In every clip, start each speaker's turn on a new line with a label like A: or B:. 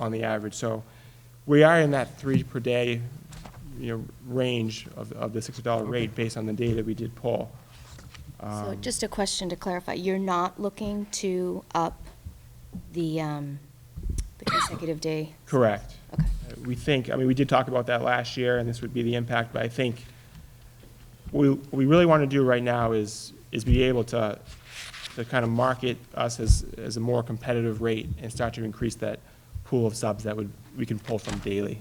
A: on the average. So we are in that three per day, you know, range of, of the $60 rate based on the data we did pull. Um,
B: So just a question to clarify, you're not looking to up the, um, the consecutive day?
A: Correct.
B: Okay.
A: Uh, We think, I mean, we did talk about that last year, and this would be the impact, but I think we, what we really want to do right now is, is be able to, to kind of market us as, as a more competitive rate and start to increase that pool of subs that would, we can pull from daily.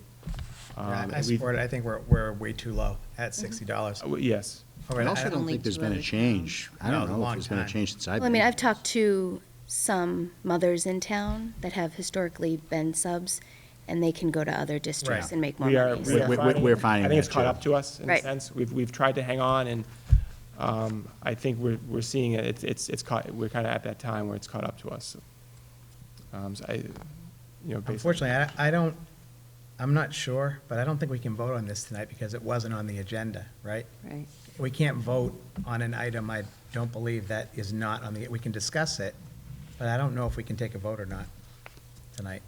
A: Um,
C: I I
A: and we-
C: support it. I think we're, we're way too low at
D: Mm-hmm.
C: sixty dollars.
A: uh, w- Yes.
E: I also don't
B: Only
E: think there's
B: two
E: been
B: other
E: a change. I
C: No,
E: don't
C: a
E: know
C: long
E: if there's been a
C: time.
E: change since I've
B: Well, I
E: been.
B: mean,
E: here.
B: I've talked to some mothers in town that have historically been subs, and they can go to other districts
C: Right.
B: and make more
A: We are,
B: money.
A: we
B: so-
A: are
E: We're- we're-
A: finding-
E: we're finding
A: I think it's
E: that,
A: caught
E: too.
A: up to us in a
B: Right.
A: sense. We've, we've tried to hang on, and um, I think we're, we're seeing it, It's- it's, it's caught, we're kind of at that time where it's caught up to us. Um, so I, you know, based on-
C: Unfortunately, I, I don't, I'm not sure, but I don't think we can vote on this tonight because it wasn't on the agenda, right?
D: Right.
C: We can't vote on an item, I don't believe that is not on the, we can discuss it, but I don't know if we can take a vote or not tonight.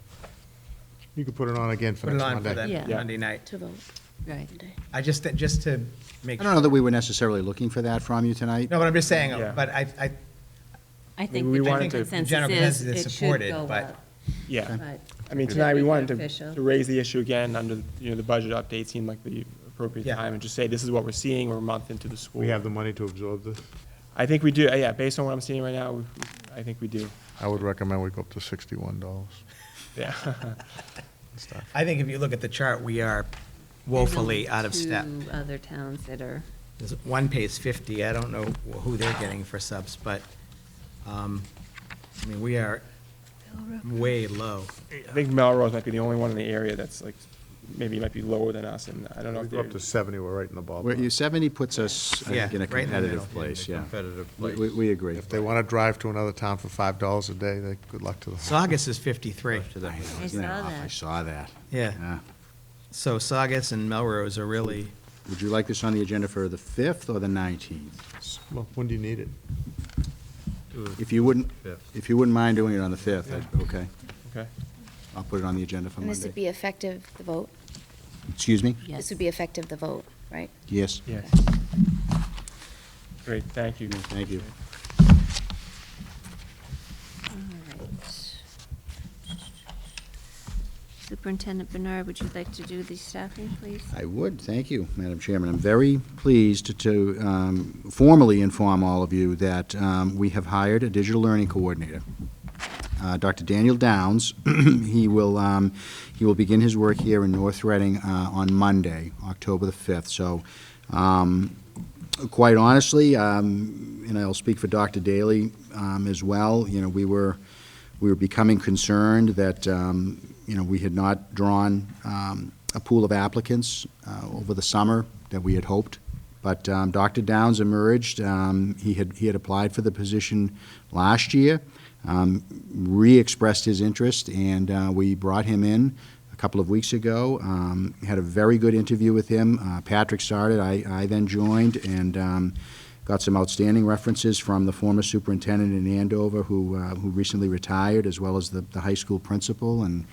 F: You could put it on again for
C: Put it
F: next
C: on for that
F: Monday.
D: Yeah.
C: Monday night.
B: To vote.
D: Right.
C: I just, just to make.
E: I don't know that we were necessarily looking for that from you tonight.
C: No, but I'm just saying,
A: Yeah.
C: but I, I,
D: I think
A: we
D: the
A: wanted
D: general
A: to-
C: General
D: consensus
C: consensus
D: is
C: is
D: it should
C: supported,
D: go
C: but-
D: up,
A: Yeah.
D: but
A: I mean,
D: Yeah.
A: tonight, we
D: Make it
A: wanted to,
D: official.
A: to raise the issue again under, you know, the budget update seemed like the appropriate
C: Yeah.
A: time, and just say, this is what we're seeing, we're a month into the school.
F: We have the money to absorb this.
A: I think we do, uh, yeah, based on what I'm seeing right now, we- I think we do,
F: I would recommend we go up to sixty-one dollars.
A: yeah.
C: I think if you look at the chart, we are
D: there's only
C: woefully out of step.
D: Two other towns that are,
C: There's One pays 50, I don't know who they're getting for subs, but, um, I mean, we are way low.
A: I think Melrose might be the only one in the area that's like, maybe might be lower than us, and I don't know
F: We
A: if
F: go up to
A: they're,
F: seventy, we're right in the
E: Where you,
F: ballpark.
E: seventy puts us, I
C: Yeah,
E: think, in a
C: right in the middle.
E: competitive place,
C: Yeah,
E: yeah.
C: competitive
E: We-
C: place.
E: We, we agree.
F: If they want to drive to another town for five dollars a day, they, good luck to them.
C: Saugus is 53,
E: To them,
D: I
E: isn't
D: saw
E: off? I
D: that.
E: saw that.
C: yeah.
E: Yeah.
C: So Saugus and Melrose are really,
E: Would you like this on the agenda for the fifth or the nineteenth?
F: Well, When do you need it?
E: If you wouldn't,
F: Fifth.
E: if you wouldn't mind doing it on the fifth, okay.
A: okay.
E: I'll put it on the agenda for
B: And this would
E: Monday.
B: be effective, the vote?
E: Excuse me?
D: yes.
B: This would be effective, the vote, right?
E: Yes.
A: Yes. Great, thank you.
E: Thank you.
D: All right. Superintendent Bernard, would you like to do the staffing, please?
E: I would, thank you, Madam Chairman. I'm very pleased to- to um, formally inform all of you that um, we have hired a digital learning coordinator. Uh, Dr. Daniel Downs, he will, um, he will begin his work here in North Reading uh, on Monday, October the 5th. So um, quite honestly, um, and I'll speak for Dr. Daly um, as well, you know, we were, we were becoming concerned that, um, you know, we had not drawn um, a pool of applicants uh, over the summer that we had hoped. But um, Dr. Downs emerged. Um, He had, he had applied for the position last year, um, re-expressed his interest, and uh, we brought him in a couple of weeks ago. Um, had a very good interview with him. Uh, Patrick started, I, I then joined, and um, got some outstanding references from the former superintendent in Andover who, uh, who recently retired, as well as the, the high school principal. And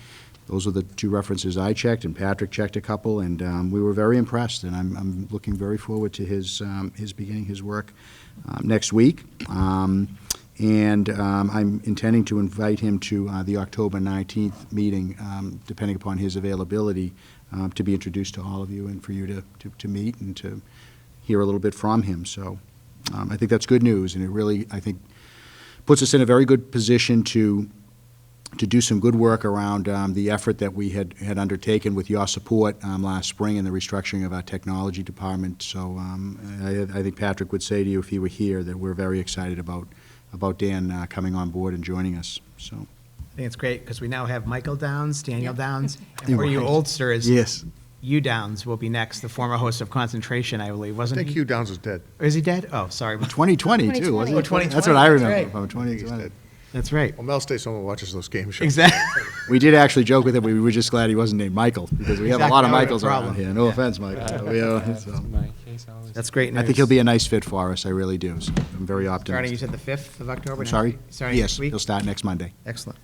E: those are the two references I checked, and Patrick checked a couple, and um, we were very impressed. And I'm, I'm looking very forward to his, um, his beginning his work um, next week. Um, and um, I'm intending to invite him to uh, the October 19th meeting, um, depending upon his availability, um, to be introduced to all of you and for you to, to, to meet and to hear a little bit from him. So um, I think that's good news, and it really, I think, puts us in a very good position to, to do some good work around um, the effort that we had, had undertaken with your support um, last spring in the restructuring of our technology department. So um, I, I think Patrick would say to you if he were here that we're very excited about, about Dan uh, coming on board and joining us, so.
C: I think it's great, because we now have Michael Downs, Daniel
D: Yeah.
C: Downs, and for you
E: Right.
C: oldsters. You Downs will be next, the former host of Concentration, I believe,
F: I
C: wasn't
F: think
C: he?
F: Hugh Downs is dead.
C: Is he dead? Oh, sorry.
E: 2020 too,
B: 2020.
E: wasn't it?
C: Oh, 2020,
E: That's what I
C: that's
E: remember
C: right.
E: from
F: He's dead.
E: 2020.
C: That's right.
F: Well, Mel stays home and watches those game shows.
C: Exactly.
E: We did actually joke with him, we were just glad he wasn't named Michael, because we have a
C: Exactly,
E: lot of
C: that would've been a
E: Michaels around
C: problem.
E: here. No offense, Michael. We are-
A: That's
E: so.
A: my case, I always-
C: That's great news.
E: I think he'll be a nice fit for us, I really do. So I'm very
C: Starting, you
E: optimistic.
C: said the 5th of October?
E: I'm sorry?
C: Starting
E: Yes,
C: next week?
E: he'll start next Monday.
C: Excellent.